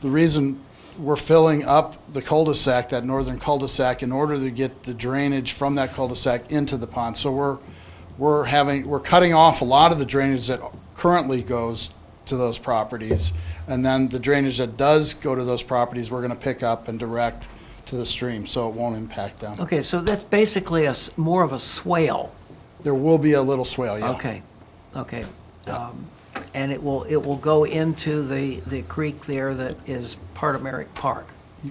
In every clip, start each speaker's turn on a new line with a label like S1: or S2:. S1: the reason we're filling up the cul-de-sac, that northern cul-de-sac, in order to get the drainage from that cul-de-sac into the pond. So we're, we're having, we're cutting off a lot of the drainage that currently goes to those properties. And then the drainage that does go to those properties, we're gonna pick up and direct to the stream, so it won't impact them.
S2: Okay, so that's basically a, s- more of a swale.
S1: There will be a little swale, yeah.
S2: Okay, okay. Um, And it will, it will go into the, the creek there that is part of Merrick Park.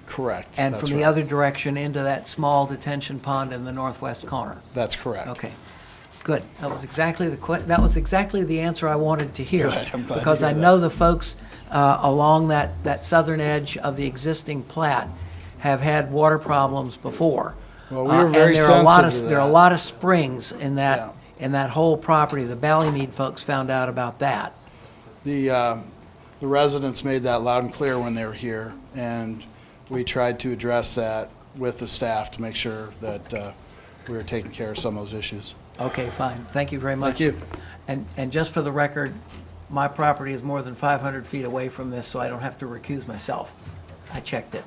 S1: Correct.
S2: And
S1: That's
S2: from the
S1: right.
S2: other direction into that small detention pond in the northwest corner.
S1: That's correct.
S2: Okay, good. That was exactly the que, that was exactly the answer I wanted to hear.
S1: Good, I'm glad to
S2: Because
S1: hear
S2: I
S1: that.
S2: know the folks uh, along that, that southern edge of the existing plat have had water problems before.
S1: Well, we
S2: Uh,
S1: were
S2: and
S1: very
S2: there are a lot of-
S1: sensitive to
S2: There are a
S1: that.
S2: lot of springs in that,
S1: Yeah.
S2: in that whole property. The Ballymead folks found out about that.
S1: The, um, the residents made that loud and clear when they were here, and we tried to address that with the staff to make sure that uh, we were taking care of some of those issues.
S2: Okay, fine. Thank you very much.
S1: Thank you.
S2: And, and just for the record, my property is more than 500 feet away from this, so I don't have to recuse myself. I checked it.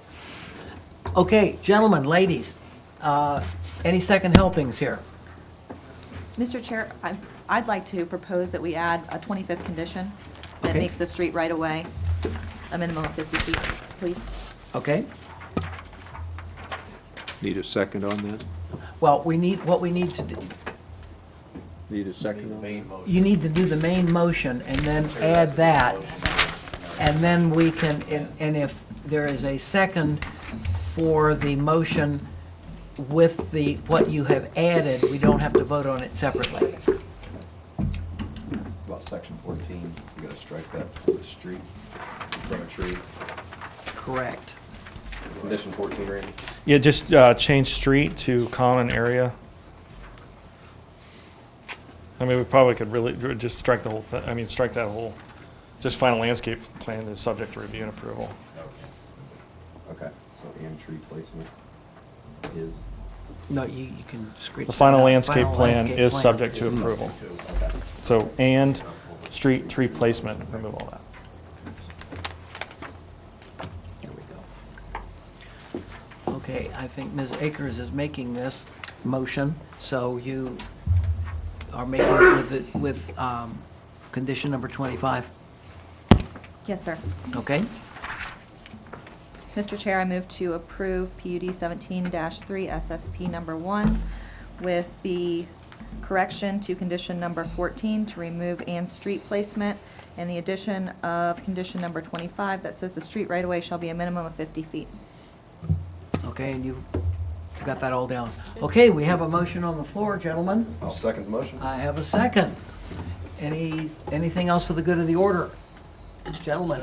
S2: Okay, gentlemen, ladies, uh, any second helpings here?
S3: Mr. Chair, I- I'd like to propose that we add a 25th condition that
S2: Okay.
S3: makes the street right away a minimum of 50 feet, please.
S2: Okay?
S4: Need a second on that?
S2: Well, we need, what we need to do,
S4: Need a second on that?
S2: you need to do the main motion and then add that. And then we can, and- and if there is a second for the motion with the, what you have added, we don't have to vote on it separately.
S5: About section fourteen, you gotta strike that from the street, from a tree.
S2: Correct.
S5: Condition fourteen, Randy?
S6: Yeah, just uh, change street to common area. I mean, we probably could really, just strike the whole thing, I mean, strike that whole, just final landscape plan is subject to review and approval.
S5: Okay, so and tree placement is,
S2: No, you, you can screech.
S6: The final
S2: that out.
S6: landscape
S2: Final
S6: plan
S2: landscape
S6: is
S2: plan.
S6: subject to approval. So, and street tree placement, remove all that.
S2: There we go. Okay, I think Ms. Akers is making this motion, so you are making it with, it- with, um, condition number twenty-five,
S3: Yes, sir.
S2: okay?
S3: Mr. Chair, I move to approve PUD 17-3 SSP number one with the correction to condition number 14 to remove and street placement and the addition of condition number 25 that says the street right away shall be a minimum of 50 feet.
S2: Okay, and you've got that all down. Okay, we have a motion on the floor, gentlemen.
S5: I'll oh, second the motion.
S2: I have a second. Any, anything else for the good of the order? Gentlemen,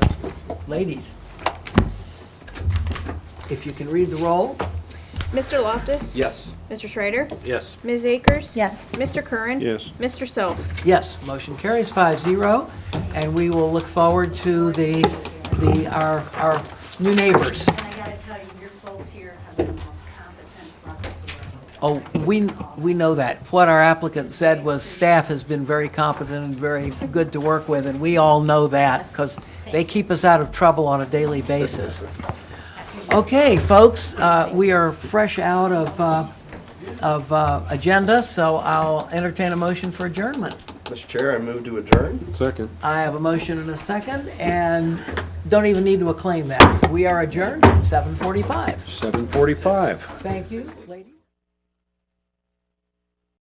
S2: ladies. If you can read the roll,
S7: Mr. Loftus?
S5: Yes.
S7: Mr. Schrader?
S4: Yes.
S7: Ms. Akers?
S3: Yes.
S7: Mr. Curran?
S4: Yes.
S7: Mr. Self?
S2: yes, motion carries five zero, and we will look forward to the, the, our, our new neighbors.
S8: And I gotta tell you, your folks here have been the most competent Russell to work with.
S2: Oh, we, we know that. What our applicant said was staff has been very competent and very good to work with, and we all know that because they keep us out of trouble on a daily basis. Okay, folks, uh, we are fresh out of, uh, of uh, agenda, so I'll entertain a motion for adjournment.
S5: Mr. Chair, I move to adjourn.
S4: Second.
S2: I have a motion and a second, and don't even need to acclaim that. We are adjourned at 7:45.
S4: Seven forty-five.
S2: Thank you.